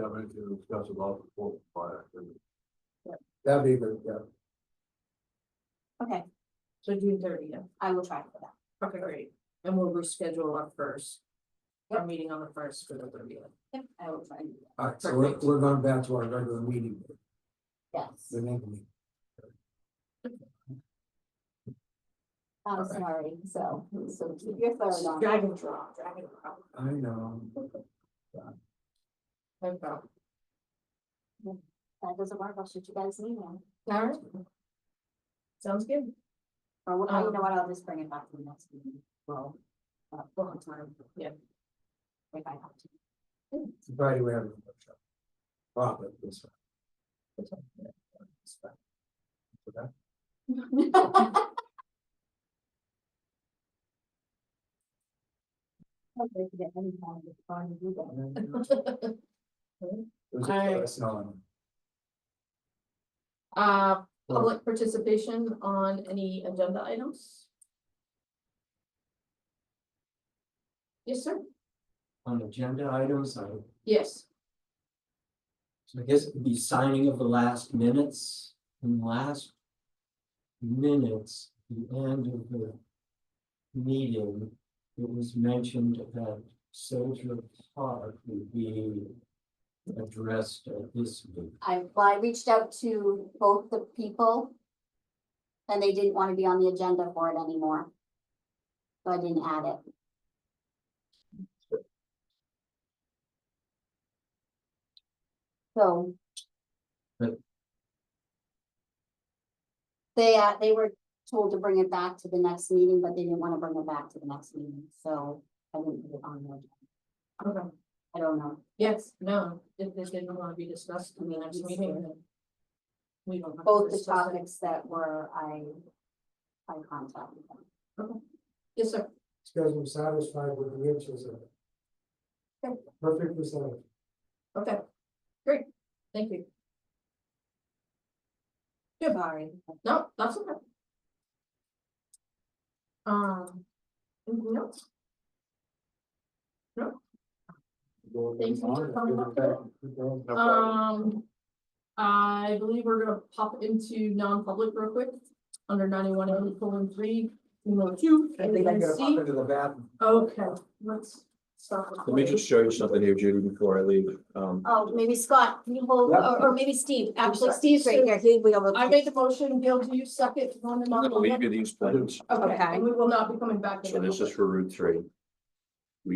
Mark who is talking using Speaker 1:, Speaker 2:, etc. Speaker 1: have anything to discuss about the fourth fire.
Speaker 2: That'd be the, yeah.
Speaker 3: Okay,
Speaker 4: So June thirtieth,
Speaker 3: I will try for that.
Speaker 4: okay, great, and we'll reschedule our first, our meeting on the first for the thirtieth.
Speaker 3: Yep, I will try and do that.
Speaker 2: All right, so we're,
Speaker 4: Perfect.
Speaker 2: we're going back to our regular meeting,
Speaker 3: Yes,
Speaker 2: the next meeting.
Speaker 3: I'm sorry, so, so keep your third on.
Speaker 4: Drag and drop, drag and drop.
Speaker 2: I know.
Speaker 4: No problem.
Speaker 3: That doesn't work, I'll shoot you guys an email.
Speaker 4: All right. Sounds good.
Speaker 3: Or, well, you know
Speaker 4: Um,
Speaker 3: what, I'll just bring it back to the next meeting. Well, uh, we'll have time.
Speaker 4: Yeah.
Speaker 3: If I have to.
Speaker 2: Friday, we have a workshop. Profit this. Okay.
Speaker 3: Hopefully, if you get any kind of fun, you get
Speaker 2: It was a
Speaker 4: All right.
Speaker 2: question on-
Speaker 4: Uh, public participation on any agenda items? Yes, sir,
Speaker 5: on agenda items, I,
Speaker 4: yes,
Speaker 5: so I guess it would be signing of the last minutes and last minutes, the end of the meeting, it was mentioned that Soldier Park would be addressed at this meeting.
Speaker 3: I, well, I reached out to both the people. And they didn't want to be on the agenda for it anymore. So I didn't add it. So.
Speaker 5: But-
Speaker 3: They, uh, they were told to bring it back to the next meeting, but they didn't want to bring it back to the next meeting, so I didn't put it on there.
Speaker 4: okay,
Speaker 3: I don't know.
Speaker 4: yes, no, if this didn't want to be discussed in the next meeting, then we don't. have to
Speaker 3: Both the
Speaker 4: discuss it.
Speaker 3: topics that were, I. I contacted them.
Speaker 4: Yes, sir,
Speaker 2: These guys were satisfied with the answers of it. Perfectly said.
Speaker 4: okay, great, thank you, Yeah.
Speaker 3: Sorry.
Speaker 4: no, that's okay. Um, anything else? Thank you for coming up today. Um, I believe we're gonna pop into non-public real quick, under ninety-one, and colon three, number two.
Speaker 2: I think I'm
Speaker 4: and
Speaker 2: gonna
Speaker 4: C.
Speaker 2: pop into the bathroom.
Speaker 4: Okay, let's stop.
Speaker 6: Let me just show you something here, Judy, before I leave. Um,
Speaker 3: Oh, maybe Scott, can you
Speaker 4: Oh,
Speaker 3: hold,
Speaker 2: Yeah.
Speaker 3: or, or maybe Steve, actually
Speaker 4: sorry.
Speaker 3: Steve's right here, he, we all.
Speaker 4: I made the motion, Bill, do you second on the
Speaker 6: I'm gonna leave
Speaker 4: non-public?
Speaker 6: you these plans.
Speaker 4: Okay,
Speaker 3: Okay.
Speaker 4: and we will not be coming back. in
Speaker 6: So this
Speaker 4: non-public.
Speaker 6: is for Route Three.